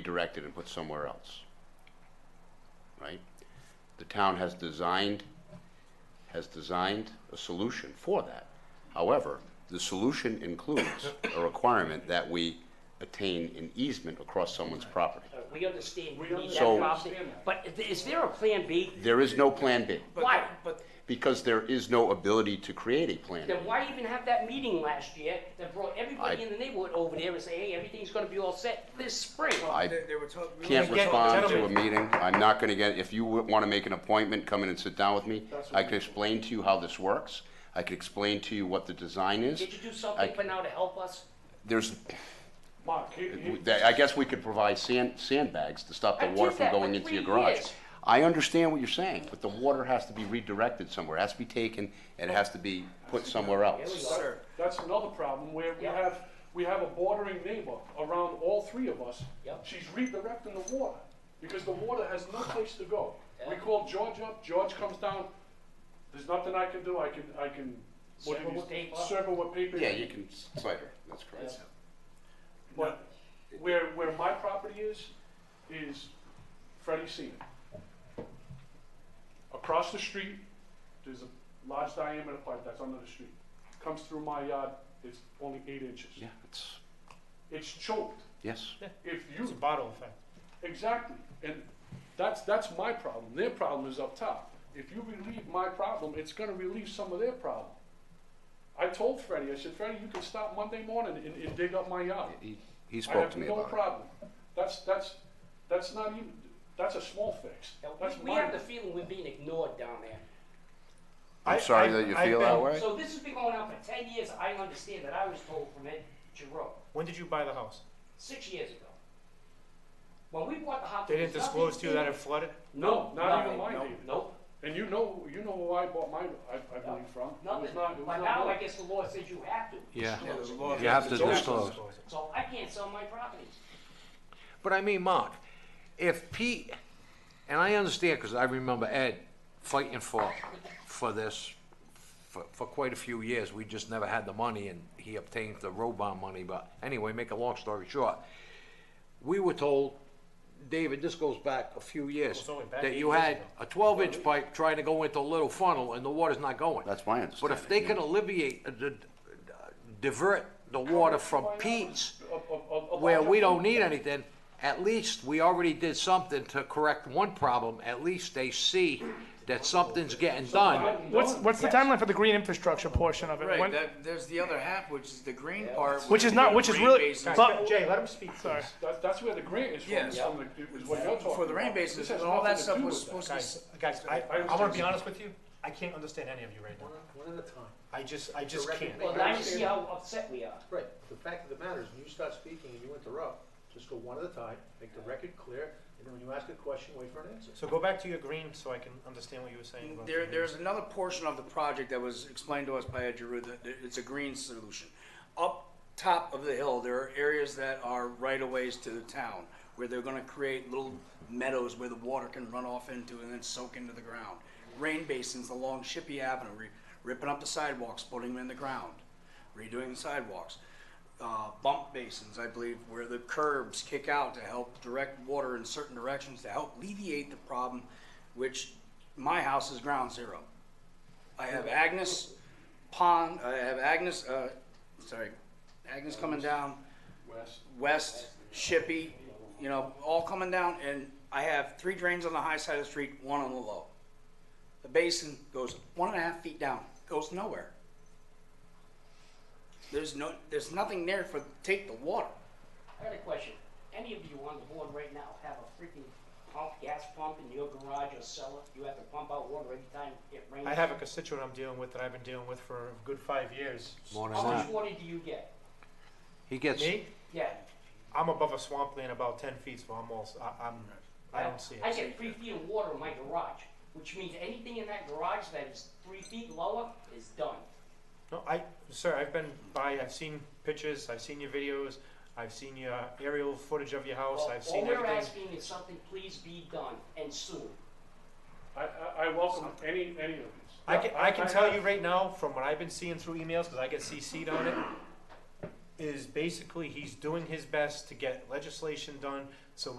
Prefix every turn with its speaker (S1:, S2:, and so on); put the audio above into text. S1: redirected and put somewhere else. Right? The town has designed, has designed a solution for that. However, the solution includes a requirement that we attain an easement across someone's property.
S2: Uh, We understand you need that
S1: So-
S2: property, but is- is there a plan B?
S1: There is no Plan B,
S3: But-
S2: Why?
S3: But,
S1: because there is no ability to create a Plan B.
S2: Then why even have that meeting last year that brought everybody
S1: I-
S2: in the neighborhood over there and say, hey, everything's gonna be all set this spring?
S1: I
S3: they, they were talking.
S1: can't
S3: we were
S1: respond to a
S3: talking-
S1: meeting. I'm not gonna get, if you want to make an appointment, come in and sit down with me. I can explain to you how this works. I can explain to you what the design is.
S2: Did you do
S1: I-
S2: something for now to help us?
S1: There's,
S4: Mark, he, he,
S1: I guess we could provide sand, sandbags to stop the
S2: I did
S1: water from
S2: that for
S1: going into your
S2: three
S1: garage.
S2: years.
S1: I understand what you're saying, but the water has to be redirected somewhere, It has to be taken, and it has to be put somewhere else.
S3: Sir,
S4: that's another problem, where we
S2: Yeah.
S4: have, we have a bordering neighbor around all three of us.
S2: Yep.
S4: She's redirecting the water, because the water has no place to go. We
S2: Yeah.
S4: call George up, George comes down, there's nothing I can do, I can, I can. what
S2: Serve
S4: do
S2: her
S4: you-
S2: with paper.
S4: Serve her with paper.
S1: Yeah, you can cite her, that's correct.
S4: But where, where my property is, is Freddie Senior. Across the street, there's a large diameter pipe that's under the street. Comes through my yard, it's only eight inches.
S1: Yeah, it's,
S4: It's choked.
S1: yes.
S4: If
S5: It's a
S4: you,
S5: bottle effect.
S4: exactly, and that's, that's my problem. Their problem is up top. If you relieve my problem, it's gonna relieve some of their problem. I told Freddie, I said, Freddie, you can stop Monday morning and, and dig up my yard.
S1: He- He
S4: I
S1: spoke
S4: have
S1: to me
S4: no
S1: about it.
S4: problem. That's, that's, that's not even, that's a small fix.
S2: Now, we-
S4: That's
S2: We have
S4: minor.
S2: the feeling we're being ignored down there.
S5: I-
S1: I'm sorry
S5: I-
S1: that you
S5: I've
S1: feel that
S5: been-
S1: way.
S2: So this has been going on for ten years, I understand that, I was told from Ed Giroux,
S5: When did you buy the house?
S2: six years ago. When we bought the house.
S5: They
S2: there
S5: didn't
S2: was
S5: disclose
S2: nothing
S5: to you that
S2: in
S5: it flooded?
S4: No, not
S2: Nothing,
S4: even mine,
S2: no,
S4: David.
S2: Nope.
S4: And you know, you know who I bought mine, I, I
S2: No,
S4: believe from. It was
S2: Nothing,
S4: not, it was
S2: but
S4: not
S2: now I
S4: mine.
S2: guess the law says you have to.
S6: Yeah.
S3: yeah, the law-
S6: You have to
S3: it's always-
S6: disclose.
S5: it.
S2: So I can't sell my property.
S6: But I mean, Mark, if Pete, and I understand, because I remember Ed fighting for, for this for, for quite a few years. We just never had the money and he obtained the road bond money, but anyway, make a long story short. We were told, David, this goes back a few years,
S5: Goes only back
S6: that
S5: eight
S6: you
S5: years
S6: had
S5: ago.
S6: a twelve inch pipe trying to go into a little funnel and the water's not going.
S1: That's my
S6: But
S1: understanding.
S6: if they can alleviate, uh, d- d- divert the water from
S4: Mine was
S6: Pete's
S4: a- a- a- a
S6: where
S4: larger
S6: we don't
S4: pipe.
S6: need anything, at least we already did something to correct one problem, at least they see that something's getting done.
S7: What's what's the timeline for the green infrastructure portion of it?
S3: Right,
S7: When-
S3: that, there's the other half, which is the green part.
S7: Which is
S3: we
S7: not-
S3: do
S7: which is
S3: rain
S7: really-
S3: basins.
S7: but-
S5: Jay, let him speak,
S7: Sorry.
S5: please.
S4: That, that's where the grant is from,
S3: Yes.
S4: is from the, it was what you're talking about.
S3: For the rain
S4: This
S3: basins,
S4: has
S3: and all that
S4: nothing to
S3: stuff
S4: do
S3: was
S4: with
S3: supposed to,
S5: Guys,
S3: s-
S5: guys, I,
S4: I
S5: I wanna
S4: understand.
S5: be honest with you, I can't understand any of you right now.
S8: One at a time.
S5: I just, I just
S8: Direct-
S5: can't.
S2: Well, now you see how upset we are.
S8: Right, the fact of the matter is, when you start speaking and you interrupt, just go one at a time, make the record clear, and then when you ask a question, wait for an answer.
S5: So go back to your green so I can understand what you were saying about. the
S3: there,
S5: green.
S3: there's another portion of the project that was explained to us by Ed Giroux, that that it's a green solution. Up top of the hill, there are areas that are right of ways to the town, where they're gonna create little meadows where the water can run off into and then soak into the ground. Rain basins along Shippey Avenue, ri- ripping up the sidewalks, putting them in the ground, redoing the sidewalks. uh, bump basins, I believe, where the curbs kick out to help direct water in certain directions to help alleviate the problem, which my house is ground zero. I have Agnes Pond, I have Agnes, uh, sorry, Agnes coming down,
S4: West.
S3: West, Shippey, you know, all coming down, and I have three drains on the high side of the street, one on the low. The basin goes one and a half feet down, goes nowhere. There's no, there's nothing there for, take the water.
S2: I got a question. Any of you on the board right now have a freaking pump, gas pump in your garage or cellar? You have to pump out water every time it rains?
S5: I have a constituent I'm dealing with that I've been dealing with for a good five years.
S6: More than
S2: How much
S6: that.
S2: water do you get?
S6: He gets,
S5: Me,
S2: Yeah.
S5: I'm above a swampland about ten feet, so I'm all, s- I, am I don't see
S2: I
S5: it.
S2: get three feet of water in my garage, which means anything in that garage that is three feet lower is done.
S5: No, I, sir, I've been by, I've seen pictures, I've seen your videos, I've seen your aerial footage of your house,
S2: Well,
S5: I've seen
S2: All we're
S5: everything.
S2: asking is something please be done and soon.
S4: I, I, I welcome any, any of these.
S5: I can, I can tell
S4: have-
S5: you right now, from what I've been seeing through emails, because I get CC'd on it, is basically he's doing his best to get legislation done